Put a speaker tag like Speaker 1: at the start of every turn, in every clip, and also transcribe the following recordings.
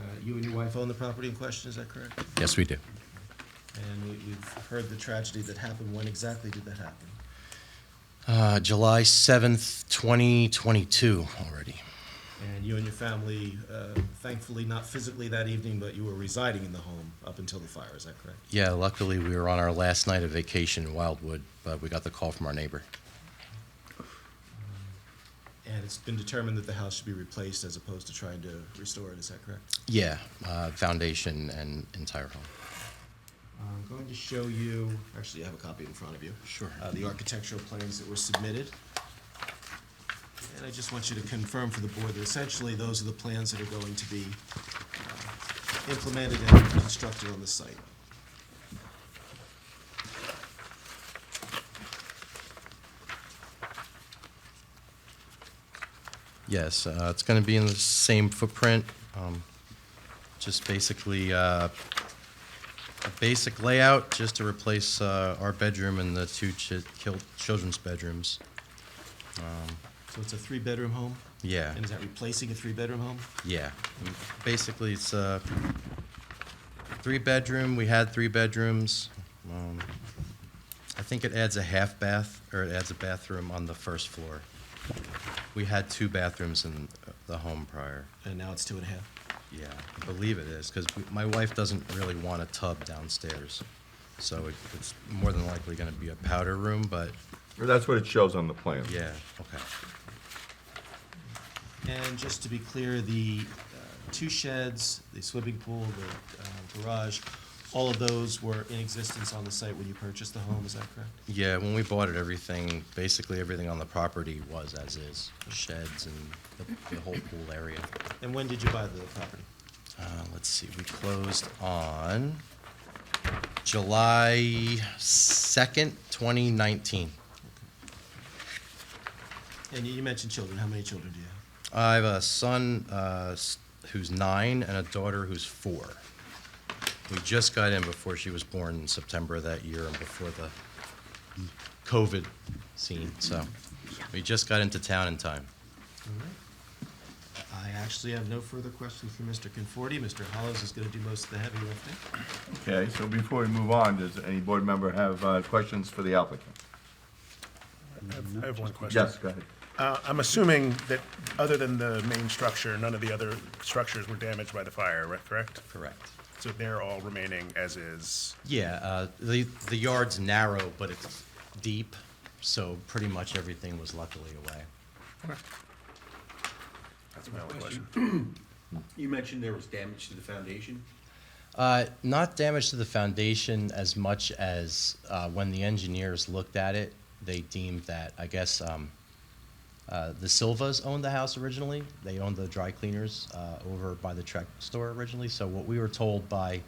Speaker 1: Uh, you and your wife own the property in question, is that correct?
Speaker 2: Yes, we do.
Speaker 1: And we, we've heard the tragedy that happened. When exactly did that happen?
Speaker 2: Uh, July 7th, 2022 already.
Speaker 1: And you and your family, uh, thankfully not physically that evening, but you were residing in the home up until the fire, is that correct?
Speaker 2: Yeah, luckily we were on our last night of vacation in Wildwood, but we got the call from our neighbor.
Speaker 1: And it's been determined that the house should be replaced as opposed to trying to restore it, is that correct?
Speaker 2: Yeah, uh, foundation and entire home.
Speaker 1: I'm going to show you, actually, I have a copy in front of you.
Speaker 2: Sure.
Speaker 1: Uh, the architectural plans that were submitted. And I just want you to confirm for the board that essentially those are the plans that are going to be uh, implemented and constructed on the site.
Speaker 2: Yes, uh, it's going to be in the same footprint, um, just basically uh, a basic layout, just to replace uh, our bedroom and the two chi- kil- children's bedrooms.
Speaker 1: So it's a three-bedroom home?
Speaker 2: Yeah,
Speaker 1: And is that replacing a three-bedroom home?
Speaker 2: yeah. Basically, it's a three-bedroom, we had three bedrooms. Um, I think it adds a half bath, or it adds a bathroom on the first floor. We had two bathrooms in uh, the home prior.
Speaker 1: And now it's two and a half?
Speaker 2: Yeah, I believe it is, because my wife doesn't really want a tub downstairs. So it- it's more than likely going to be a powder room, but
Speaker 3: Well, That's what it shows on the plan.
Speaker 2: yeah, okay.
Speaker 1: And just to be clear, the uh, two sheds, the swimming pool, the uh, garage, all of those were in existence on the site when you purchased the home, is that correct?
Speaker 2: Yeah, when we bought it, everything, basically everything on the property was as is, sheds and the- the whole pool area.
Speaker 1: And when did you buy the property?
Speaker 2: Uh, Let's see, we closed on July 2nd, 2019.
Speaker 1: And you you mentioned children, how many children do you have?
Speaker 2: I have a son uh, s- who's nine and a daughter who's four. We just got in before she was born in September of that year and before the COVID scene. So we just got into town in time.
Speaker 1: All right. I actually have no further questions for Mr. Conforti. Mr. Hollows is gonna do most of the heavy lifting.
Speaker 3: Okay, so before we move on, does any board member have uh, questions for the applicant?
Speaker 4: I have one question.
Speaker 3: Yes, go ahead.
Speaker 4: Uh, I'm assuming that, other than the main structure, none of the other structures were damaged by the fire, right- correct?
Speaker 2: Correct.
Speaker 4: So they're all remaining as is.
Speaker 2: Yeah, uh, the, the yard's narrow, but it's deep, so pretty much everything was luckily away.
Speaker 4: That's my only question.
Speaker 5: You mentioned there was damage to the foundation.
Speaker 2: Uh, not damage to the foundation as much as uh, when the engineers looked at it, they deemed that, I guess, um, uh, the Silvas owned the house originally. They owned the dry cleaners uh, over by the Trek store originally. So, what we were told by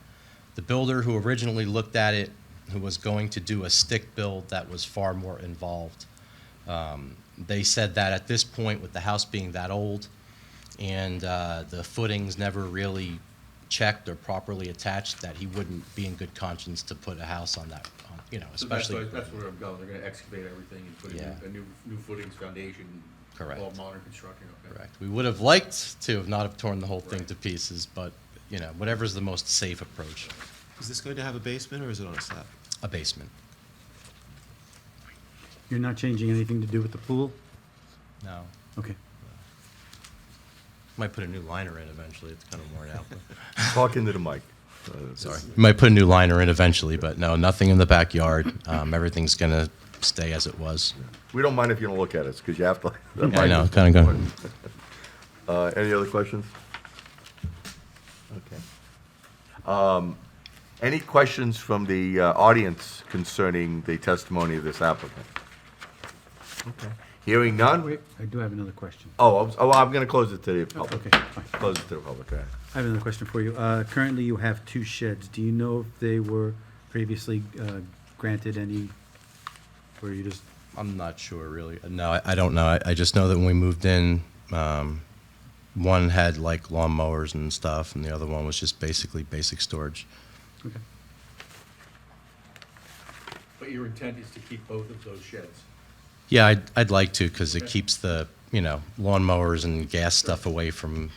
Speaker 2: the builder who originally looked at it, who was going to do a stick build that was far more involved, um, they said that at this point, with the house being that old, and uh, the footings never really checked or properly attached, that he wouldn't be in good conscience to put a house on that, on, you know,
Speaker 5: So that's,
Speaker 2: especially.
Speaker 5: why- that's where I'm going. They're gonna excavate everything and put in
Speaker 2: Yeah.
Speaker 5: a new, new footings, foundation.
Speaker 2: Correct.
Speaker 5: All modern construction, okay.
Speaker 2: Correct. We would have liked to have not have torn the whole thing
Speaker 5: Right.
Speaker 2: to pieces, but, you know, whatever's the most safe approach,
Speaker 1: Is this going to have a basement or is it on a slab?
Speaker 2: a basement.
Speaker 6: You're not changing anything to do with the pool?
Speaker 2: No.
Speaker 6: Okay.
Speaker 2: Might put a new liner in eventually. It's kind of worn out. but-
Speaker 3: Talk into the mic. Uh,
Speaker 2: Sorry. Might put a new liner in eventually, but no, nothing in the backyard. Um, everything's going to stay as it was.
Speaker 3: We don't mind if you don't look at us, because you have to. that
Speaker 2: Yeah, I
Speaker 3: mic
Speaker 2: know,
Speaker 3: is
Speaker 2: kinda go-
Speaker 3: important. Uh, Any other questions? Okay. Um, Any questions from the uh, audience concerning the testimony of this applicant? Okay. Hearing none?
Speaker 6: Wait, I do have another question.
Speaker 3: Oh, I was- oh, I'm going to close it to the public.
Speaker 6: Okay, fine.
Speaker 3: Close it to the public, all right.
Speaker 6: I have another question for you. Uh, Currently, you have two sheds. Do you know if they were previously uh, granted any, or you just,
Speaker 2: I'm not sure really. No, I, I don't know. I, I just know that when we moved in, um, one had like lawnmowers and stuff, and the other one was just basically basic storage.
Speaker 6: okay.
Speaker 5: But your intent is to keep both of those sheds?
Speaker 2: Yeah, I'd, I'd like to because it keeps the you know lawnmowers and gas stuff away from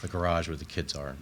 Speaker 2: the garage where the kids are.